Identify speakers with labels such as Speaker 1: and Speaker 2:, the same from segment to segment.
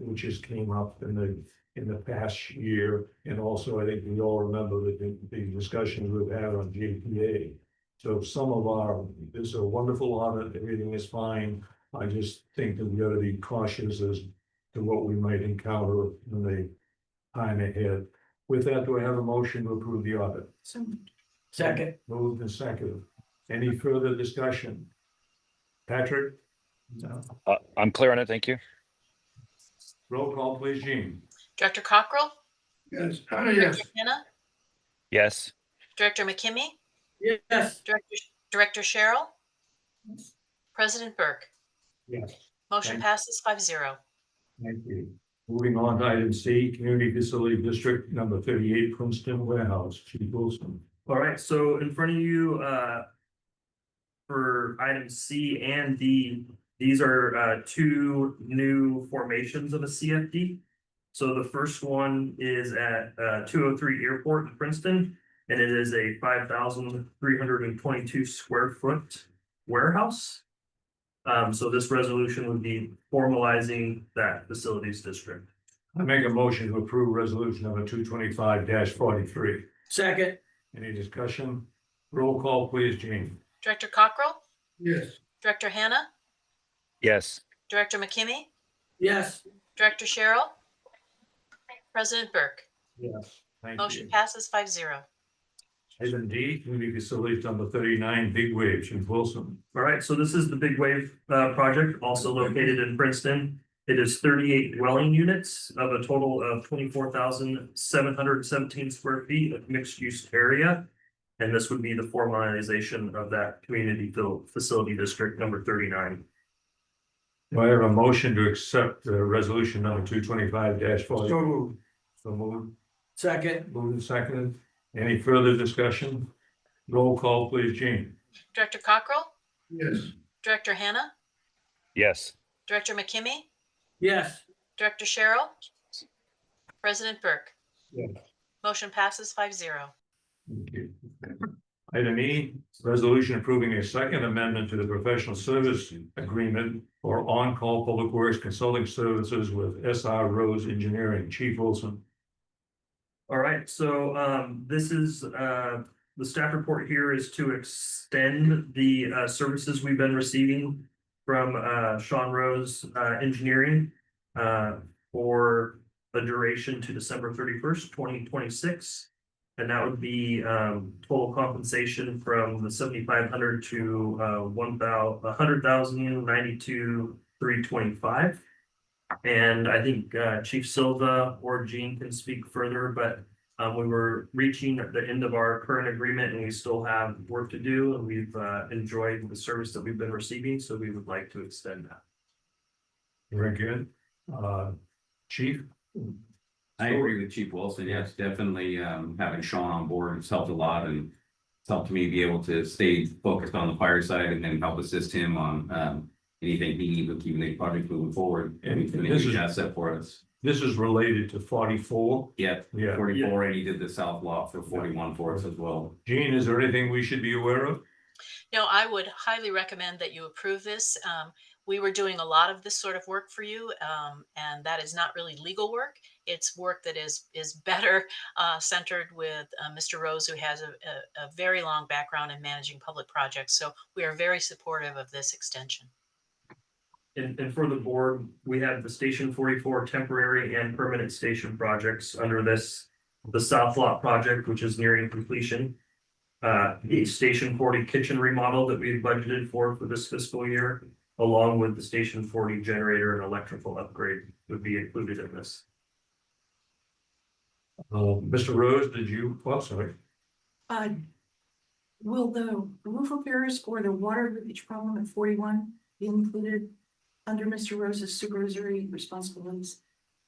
Speaker 1: which has came up in the, in the past year. And also, I think we all remember the, the- the discussions we've had on JPA. So some of our, there's a wonderful audit, everything is fine. I just think that we ought to be cautious as to what we might encounter in the time ahead. With that, do I have a motion to approve the audit?
Speaker 2: So
Speaker 3: Second,
Speaker 1: Moved and seconded. Any further discussion? Patrick?
Speaker 4: Uh, I'm clear on it. Thank you.
Speaker 1: Roll call, please, Gene.
Speaker 5: Director Cockrell?
Speaker 2: Yes,
Speaker 5: Director Hannah?
Speaker 4: Yes.
Speaker 5: Director McKimmy?
Speaker 3: yes,
Speaker 5: Director, Director Cheryl? President Burke?
Speaker 1: Yes.
Speaker 5: Motion
Speaker 1: Thank-
Speaker 5: passes five zero.
Speaker 1: Thank you. Moving on to item C, Community Facility District number thirty-eight, Princeton Warehouse, Chief Wilson.
Speaker 6: All right, so in front of you, uh. For item C and D, these are uh two new formations of a CFD. So the first one is at uh two oh three Airport in Princeton, and it is a five thousand three hundred and twenty-two square foot warehouse. Um, so this resolution would be formalizing that facilities district.
Speaker 1: I make a motion to approve resolution number two twenty-five forty-three.
Speaker 3: second,
Speaker 1: Any discussion? Roll call, please, Gene.
Speaker 5: Director Cockrell?
Speaker 2: yes,
Speaker 5: Director Hannah?
Speaker 4: Yes.
Speaker 5: Director McKimmy?
Speaker 3: yes,
Speaker 5: Director Cheryl? President Burke?
Speaker 1: Yes. Thank
Speaker 5: Motion
Speaker 1: you.
Speaker 5: passes five zero.
Speaker 1: Item D, Community Facility number thirty-nine, Big Wave, Chief Wilson.
Speaker 6: All right, so this is the Big Wave uh project, also located in Princeton. It is thirty-eight dwelling units of a total of twenty-four thousand seven hundred seventeen square feet of mixed-use area. And this would be the formalization of that community fil- facility district number thirty-nine.
Speaker 1: Do I have a motion to accept uh, resolution number two twenty-five
Speaker 3: so
Speaker 1: forty-three?
Speaker 3: moved,
Speaker 1: So moved,
Speaker 3: second,
Speaker 1: moved and seconded. Any further discussion? Roll call, please, Gene.
Speaker 5: Director Cockrell?
Speaker 2: yes,
Speaker 5: Director Hannah?
Speaker 4: Yes.
Speaker 5: Director McKimmy?
Speaker 3: yes,
Speaker 5: Director Cheryl? President Burke?
Speaker 1: Yes.
Speaker 5: Motion passes five zero.
Speaker 1: Thank you. Item E, resolution approving a second amendment to the professional service agreement for on-call public works consulting services with SR Rose Engineering. Chief Wilson.
Speaker 6: All right, so um this is uh the staff report here is to extend the uh services we've been receiving from uh Sean Rose uh Engineering uh for a duration to December thirty first, twenty twenty six. And that would be um total compensation from the seventy five hundred to uh one thou- a hundred thousand ninety two, three twenty five. And I think uh Chief Silva or Gene can speak further, but um we were reaching the end of our current agreement and we still have work to do. And we've uh enjoyed the service that we've been receiving, so we would like to extend that.
Speaker 1: Very good. Uh, Chief?
Speaker 7: I agree with Chief Wilson. Yes, definitely, um, having Sean on board has helped a lot and. It's helped me be able to stay focused on the fire side and then help assist him on, um, anything he needs with keeping the project moving forward.
Speaker 1: And
Speaker 7: He's been a
Speaker 1: this
Speaker 7: huge
Speaker 1: is-
Speaker 7: asset for us.
Speaker 1: This is related to forty-four.
Speaker 7: Yeah,
Speaker 1: Yeah.
Speaker 7: forty-four, and he did the south lot for forty-one for us as well.
Speaker 1: Gene, is there anything we should be aware of?
Speaker 5: No, I would highly recommend that you approve this. Um, we were doing a lot of this sort of work for you, um, and that is not really legal work. It's work that is is better uh, centered with uh, Mr. Rose, who has a, a, a very long background in managing public projects. So we are very supportive of this extension.
Speaker 6: And and for the board, we have the Station forty-four temporary and permanent station projects under this. The South Lot project, which is nearing completion. Uh, the Station forty kitchen remodel that we budgeted for for this fiscal year. Along with the Station forty generator and electrical upgrade would be included in this.
Speaker 1: Uh, Mr. Rose, did you, well, sorry,
Speaker 8: Uh, will the roof repairs or the water leakage problem at forty-one be included under Mr. Rose's supervisory responsibilities?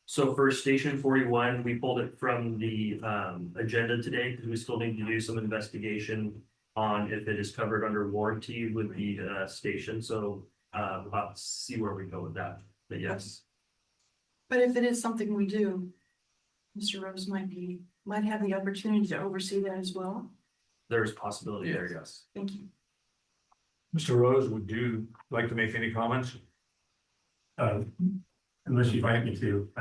Speaker 6: So for Station forty-one, we pulled it from the um agenda today because we still need to do some investigation. On if it is covered under warranty with the uh station, so uh let's see where we go with that, but yes.
Speaker 8: But if it is something we do, Mr. Rose might be, might have the opportunity to oversee that as well.
Speaker 6: There is possibility there, yes.
Speaker 8: Thank you.
Speaker 1: Mr. Rose, would you like to make any comments?
Speaker 9: Uh,
Speaker 1: unless you invite me to, I